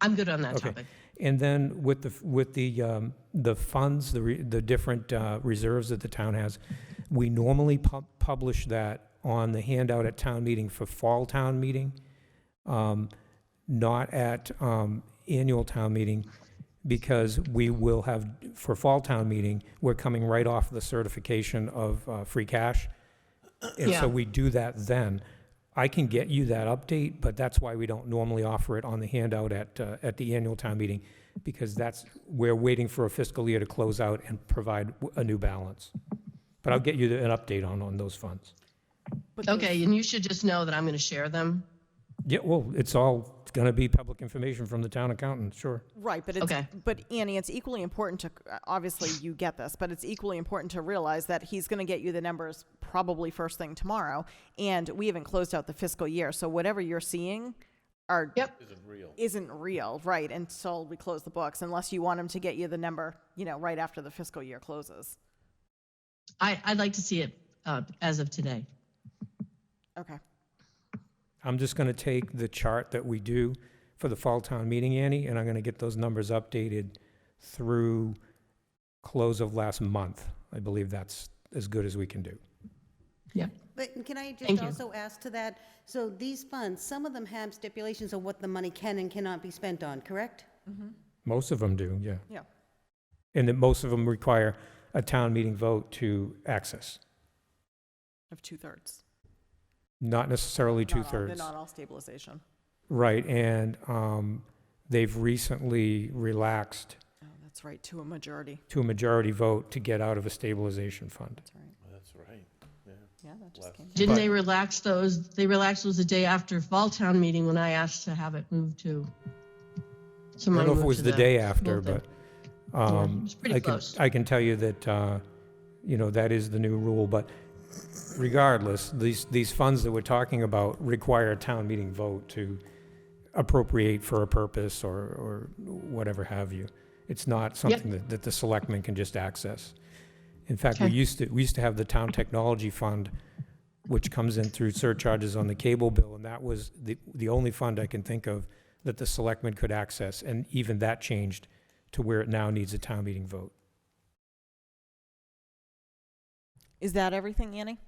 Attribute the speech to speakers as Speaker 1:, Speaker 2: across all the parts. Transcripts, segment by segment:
Speaker 1: I'm good on that
Speaker 2: Okay.
Speaker 1: topic.
Speaker 2: And then with the, with the, um, the funds, the, re- the different uh, reserves that the town has, we normally pub- publish that on the handout at town meeting for fall town meeting, um, not at um, annual town meeting, because we will have, for fall town meeting, we're coming right off the certification of uh, free cash. And
Speaker 1: Yeah.
Speaker 2: so we do that then. I can get you that update, but that's why we don't normally offer it on the handout at, uh, at the annual town meeting, because that's, we're waiting for a fiscal year to close out and provide w- a new balance. But I'll get you the- an update on, on those funds.
Speaker 3: But the-
Speaker 1: Okay, and you should just know that I'm going to share them.
Speaker 2: Yeah, well, it's all going to be public information from the town accountant, sure.
Speaker 3: Right, but it's,
Speaker 1: Okay.
Speaker 3: but Annie, it's equally important to, uh, obviously you get this, but it's equally important to realize that he's going to get you the numbers probably first thing tomorrow. And we haven't closed out the fiscal year, so whatever you're seeing are.
Speaker 1: Yep.
Speaker 3: Isn't real, right, until we close the books, unless you want him to get you the number, you know, right after the fiscal year closes.
Speaker 1: I, I'd like to see it uh, as of today.
Speaker 3: Okay.
Speaker 2: I'm just going to take the chart that we do for the fall town meeting, Annie, and I'm going to get those numbers updated through close of last month. I believe that's as good as we can do.
Speaker 1: Yep.
Speaker 4: But can I
Speaker 1: Thank
Speaker 4: just
Speaker 1: you.
Speaker 4: also ask to that, so these funds, some of them have stipulations of what the money can and cannot be spent on, correct?
Speaker 2: Most of them do, yeah.
Speaker 3: Yeah.
Speaker 2: And that most of them require a town meeting vote to access,
Speaker 3: Of two thirds.
Speaker 2: not necessarily two-thirds.
Speaker 3: They're not all stabilization.
Speaker 2: Right, and um, they've recently relaxed
Speaker 3: Oh, that's right, to a majority.
Speaker 2: to a majority vote to get out of a stabilization fund.
Speaker 3: That's right.
Speaker 5: That's right, yeah.
Speaker 3: Yeah, that just
Speaker 5: Left.
Speaker 3: came. down.
Speaker 1: Didn't
Speaker 2: But-
Speaker 1: they relax those? They relaxed those the day after fall town meeting when I asked to have it moved to.
Speaker 2: I don't know if it
Speaker 1: moved
Speaker 2: was
Speaker 1: to
Speaker 2: the day after,
Speaker 1: Well, then-
Speaker 2: but um,
Speaker 1: it's pretty
Speaker 2: I can,
Speaker 1: close.
Speaker 2: I can tell you that, uh, you know, that is the new rule, but regardless, these, these funds that we're talking about require a town meeting vote to appropriate for a purpose or, or whatever have you. It's not something that, that the selectmen can just access. In fact, we
Speaker 1: Okay.
Speaker 2: used to, we used to have the town technology fund, which comes in through surcharges on the cable bill, and that was the, the only fund I can think of that the selectmen could access, and even that changed to where it now needs a town meeting vote.
Speaker 3: Is that everything, Annie?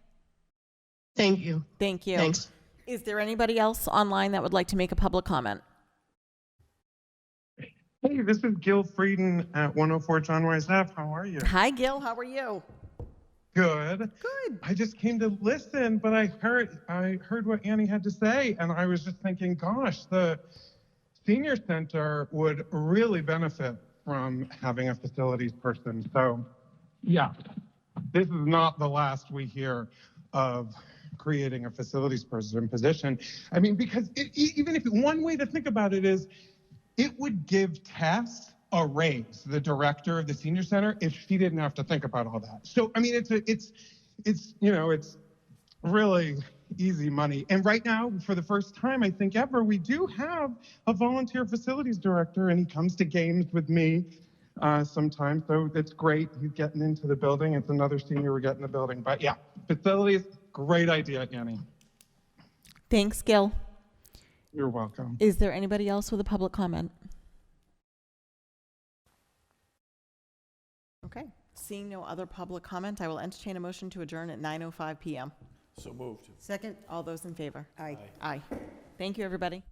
Speaker 1: Thank you.
Speaker 3: Thank you.
Speaker 1: Thanks.
Speaker 3: Is there anybody else online that would like to make a public comment?
Speaker 6: Hey, this is Gil Frieden at 104 John Wise Ave. How are you?
Speaker 3: Hi, Gil. How are you?
Speaker 6: Good.
Speaker 3: Good.
Speaker 6: I just came to listen, but I heard I heard what Annie had to say, and I was just thinking, gosh, the senior center would really benefit from having a facilities person. So, yeah, this is not the last we hear of creating a facilities person position. I mean, because it, e- even if one way to think about it is, it would give Tess a raise, the director of the senior center, if she didn't have to think about all that. So I mean, it's a, it's it's you know it's really easy money. And right now, for the first time I think ever, we do have a volunteer facilities director, and he comes to games with me uh, sometimes. So it's great. He's getting into the building. It's another senior we get in the building. But yeah, facilities, great idea, Annie.
Speaker 3: Thanks, Gil.
Speaker 6: You're welcome.
Speaker 3: Is there anybody else with a public comment? Okay. Seeing no other public comment, I will entertain a motion to adjourn at 9:05 PM.
Speaker 5: So moved.
Speaker 4: Second?
Speaker 3: All those in favor?
Speaker 4: Aye.
Speaker 3: Aye. Thank you, everybody.